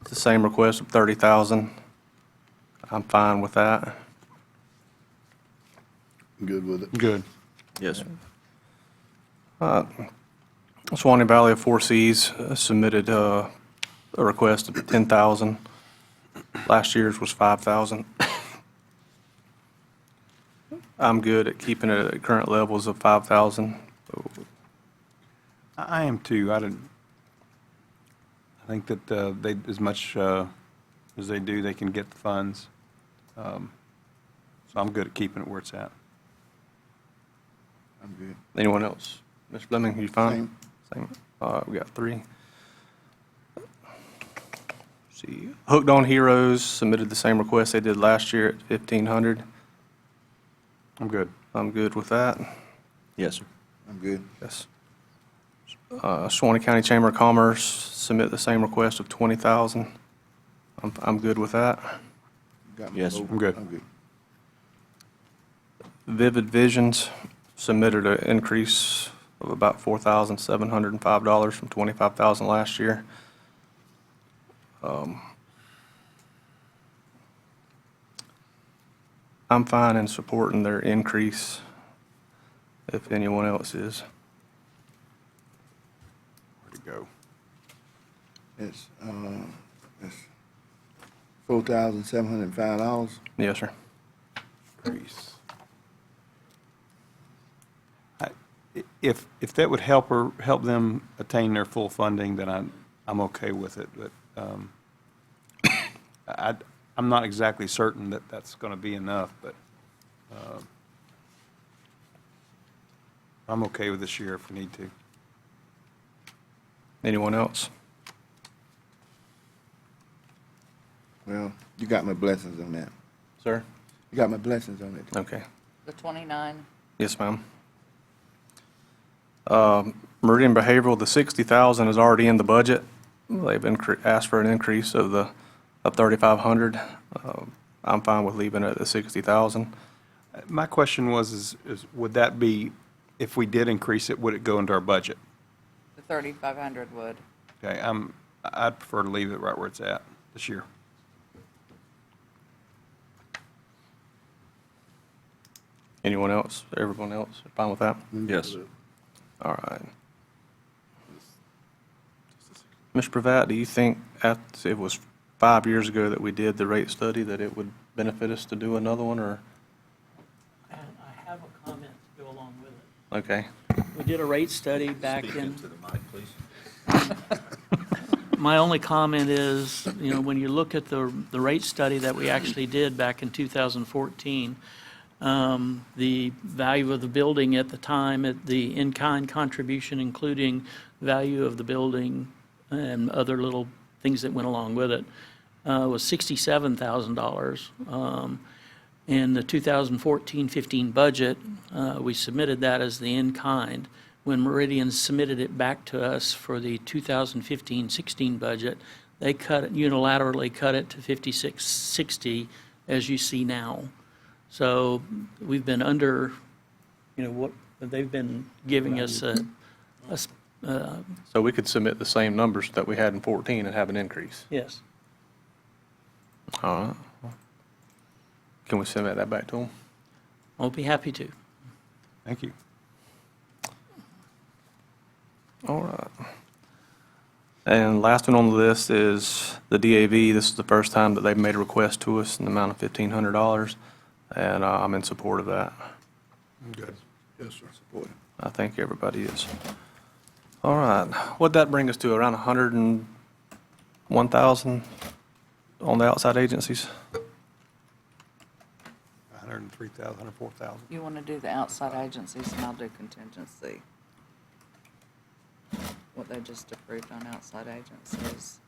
It's the same request of 30,000. I'm fine with that. Good with it. Good. Yes. Uh, Swanee Valley of Four Seas uh, submitted uh, a request of 10,000. Last year's was 5,000. I'm good at keeping it at current levels of 5,000. I I am too. I didn't, I think that uh, they, as much uh, as they do, they can get the funds. Um, So I'm good at keeping it where it's at. I'm good. Anyone else? Mr. Fleming, you fine? Same. All right, we got three. See, Hooked on Heroes submitted the same request they did last year at 1,500. I'm good. I'm good with that. Yes, sir. I'm good. Yes. Uh, Suwanee County Chamber of Commerce submit the same request of 20,000. I'm, I'm good with that. Got my Yes, vote. I'm good. I'm good. Vivid Visions submitted an increase of about $4,705 from 25,000 last year. Um, I'm fine in supporting their increase if anyone else is. Where to go? It's, uh, it's four thousand seven hundred and five dollars. Yes, sir. Grease. I- i- If, if that would help her, help them attain their full funding, then I'm, I'm okay with it, but um, I, I'm not exactly certain that that's going to be enough, but um, I'm okay with this year if we need to. Anyone else? Well, you got my blessings on that. Sir? You got my blessings on it. Okay. The 29, Yes, ma'am. Um, Meridian Behavioral, the 60,000 is already in the budget. They've incre- asked for an increase of the, of 3,500. Um, I'm fine with leaving it at the 60,000. Uh, My question was, is, is would that be, if we did increase it, would it go into our budget? the 3,500 would. Okay, I'm, I'd prefer to leave it right where it's at this year. Anyone else, everyone else, fine with that? Yes. All right. Ms. Pravat, do you think, at it was five years ago that we did the rate study, that it would benefit us to do another one, or? And I have a comment to go along with it. Okay. We did a rate study back in. My only comment is, you know, when you look at the, the rate study that we actually did back in 2014, um, the value of the building at the time, at the in-kind contribution, including value of the building and other little things that went along with it, uh, was $67,000. Um, in the 2014-15 budget, uh, we submitted that as the in-kind. When Meridian submitted it back to us for the 2015-16 budget, they cut, it unilaterally cut it to 5660, as you see now. So we've been under, you know, what, they've been giving us a, a s- uh, So we could submit the same numbers that we had in 14 and have an increase? yes. All right. Can we send that back to them? I'll be happy to. Thank you. All right. And last one on the list is the DAV. This is the first time that they've made a request to us in the amount of $1,500, and uh, I'm in support of that. Good. Yes, sir. Support it. I think everybody is. All right. What'd that bring us to, around 101,000 on the outside agencies? 103,000, 104,000. You want to do the outside agencies, and I'll do contingency. What they just approved on outside agencies.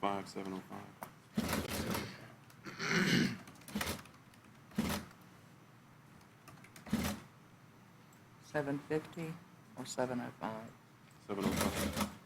Five, seven oh five. Seven fifty or seven oh five? Seven oh five.